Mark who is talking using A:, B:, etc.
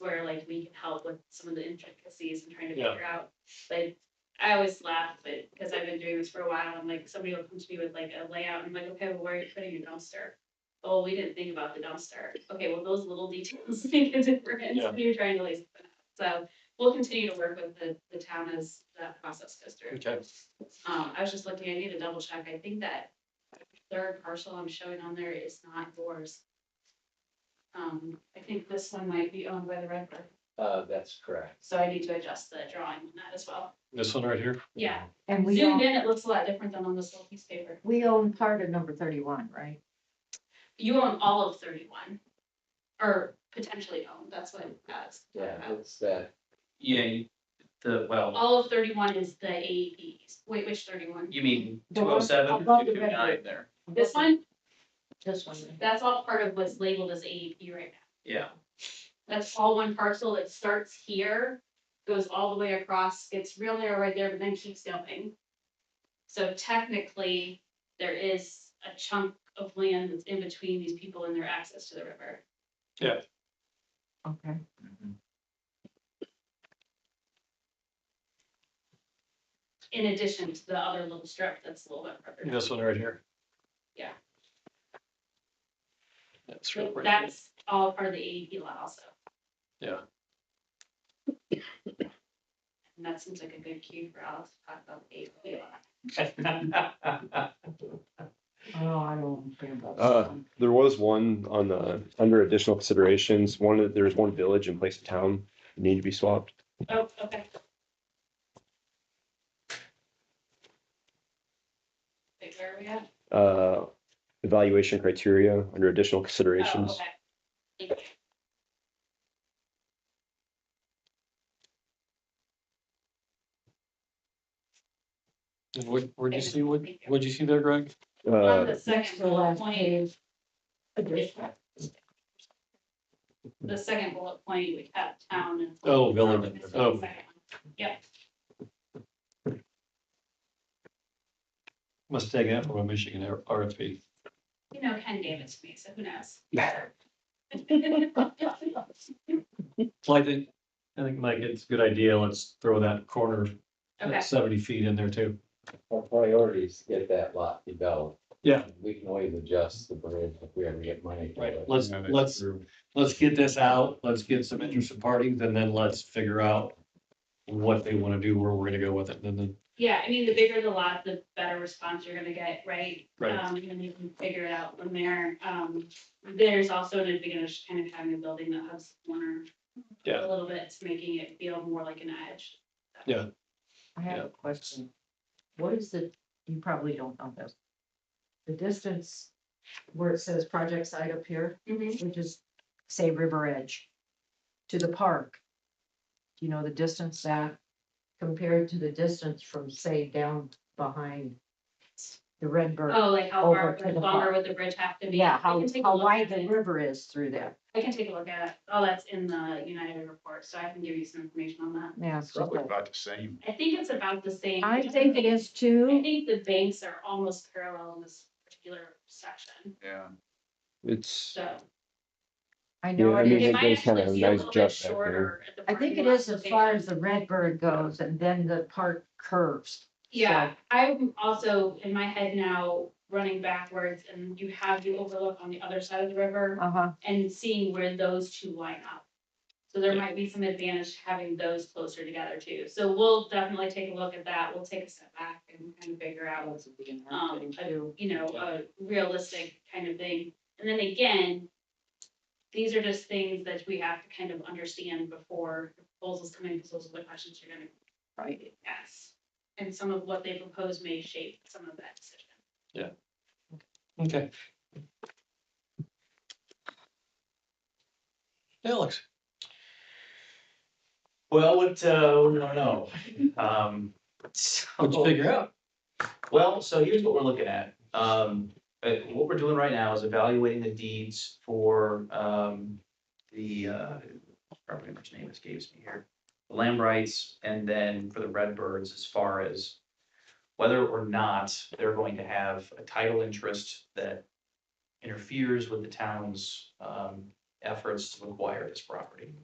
A: where like we can help with some of the intricacies and trying to
B: Yeah.
A: figure out. Like, I always laugh, but, because I've been doing this for a while, I'm like, somebody will come to me with like a layout, and I'm like, okay, well, where are you putting your dumpster? Oh, we didn't think about the dumpster. Okay, well, those little details make a difference
B: Yeah.
A: when you're trying to lace it up. So we'll continue to work with the, the town as that process goes through.
B: Okay,
A: Um, I was just looking, I need to double check, I think that third parcel I'm showing on there is not yours. Um, I think this one might be owned by the Redbird,
C: Uh, that's correct.
A: so I need to adjust the drawing on that as well.
B: this one right here,
A: Yeah,
D: And we
A: zoomed
D: own,
A: in, it looks a lot different than on this little piece of paper.
D: we own part of number thirty-one, right?
A: You own all of thirty-one, or potentially own, that's what it has.
C: Yeah, it's that,
E: Yeah, you- E the, well,
A: All of thirty-one is the AEP, wait, which thirty-one?
E: you mean
D: The
E: two
D: one
E: oh seven,
D: above the
E: two two nine
D: red.
E: there,
A: This one,
D: This one.
A: that's all part of what's labeled as AEP right now.
E: yeah.
A: That's all one parcel that starts here, goes all the way across, gets real narrow right there, but then keeps going. So technically, there is a chunk of land that's in between these people and their access to the river.
D: Okay.
A: In addition to the other little strip that's a little bit further. down.
B: this one right here.
A: Yeah.
B: That's right.
A: So That's all part of the AEP lot also.
B: Yeah.
A: And that seems like a good cue for Alice to talk about the AEP lot.
D: Oh, I don't understand about
F: Uh,
D: that. one.
F: There was one on the, under additional considerations, one, that- there's one village in place of town that need to be swapped.
A: Oh, okay. Wait, where are we at?
F: Uh, evaluation criteria under additional
A: Oh,
F: considerations.
A: okay. Thank you.
B: And what, where'd you see, what, what'd you see there, Greg?
F: Uh,
A: On the
D: Next
A: second
D: to the
A: bullet
D: last
A: point,
D: page. Additional.
A: the second bullet point, we kept town and.
B: Oh, village.
A: This is the
B: Oh,
A: second one. Yep,
B: must take that from a Michigan R- RFP.
A: you know, Ken gave it to me, so who knows?
B: So I think, I think Mike, it's a good idea. Let's throw that corner at
A: Okay,
B: seventy feet in there too.
C: our priority is to get that lot developed.
B: Yeah.
C: We can always adjust the bridge if we ever get money. for
B: Right,
C: it.
B: let's-
C: Move it
B: let's-
C: through.
B: Let's get this out. Let's get some interested parties and then let's figure out what they want to do, where we're gonna go with it. And then,
A: yeah, I mean, the bigger the lot, the better response you're gonna get, right?
B: right,
A: Um, and you can figure it out from there. Um, there's also an advantage to kind of having a building that has corner.
B: Yeah.
A: A little bit, to making it feel more like an edge.
D: I have a question. What is the, you probably don't know this. The distance where it says project site up here,
A: Mm-hmm.
D: which is, say, River Edge, to the park. Do you know the distance that compared to the distance from, say, down behind the Redbird?
A: Oh, like how
D: Over
A: far,
D: to
A: like
D: the
A: longer
D: park.
A: would the bridge have to be?
D: Yeah,
A: I
D: how,
A: can take a
D: how
A: look
D: wide
A: at
D: the
A: it.
D: river is through there.
A: I can take a look at it. Oh, that's in the United report, so I can give you some information on that.
D: Yeah. it's just
G: Probably
D: like-
G: about the same.
A: I think it's about the same.
D: I think it is
A: I
D: too.
A: think the banks are almost parallel in this particular section,
G: Yeah.
F: It's,
A: so.
D: I
F: Yeah,
D: know
F: I
D: it
F: mean,
D: is.
A: It might
F: goes kinda
A: actually be
F: a
A: a
F: nice
A: little
F: jump
A: bit
F: back there.
A: shorter at the
D: I think
A: parking
D: it
A: lot
D: is
A: than
D: as far
A: Banks.
D: as the Redbird goes and then the park curves.
A: Yeah, I'm also in my head now running backwards and you have the overlook on the other side of the river
D: Uh huh.
A: and seeing where those two line up. So there might be some advantage to having those closer together too. So we'll definitely take a look at that. We'll take a step back and kind of figure out um, a- you know, a realistic kind of thing. And then again, these are just things that we have to kind of understand before the proposals come in, because those are the questions you're gonna
D: Right.
A: ask. And some of what they propose may shape some of that decision.
B: okay. Alex,
E: Well, what, uh, what do I know? Um,
B: what'd you
E: so,
B: figure out?
E: well, so here's what we're looking at. Um, uh, what we're doing right now is evaluating the deeds for, um, the, uh, property owner's name escapes me here. The Land rights and then for the Redbirds as far as whether or not they're going to have a title interest that interferes with the town's, um, efforts to acquire this property.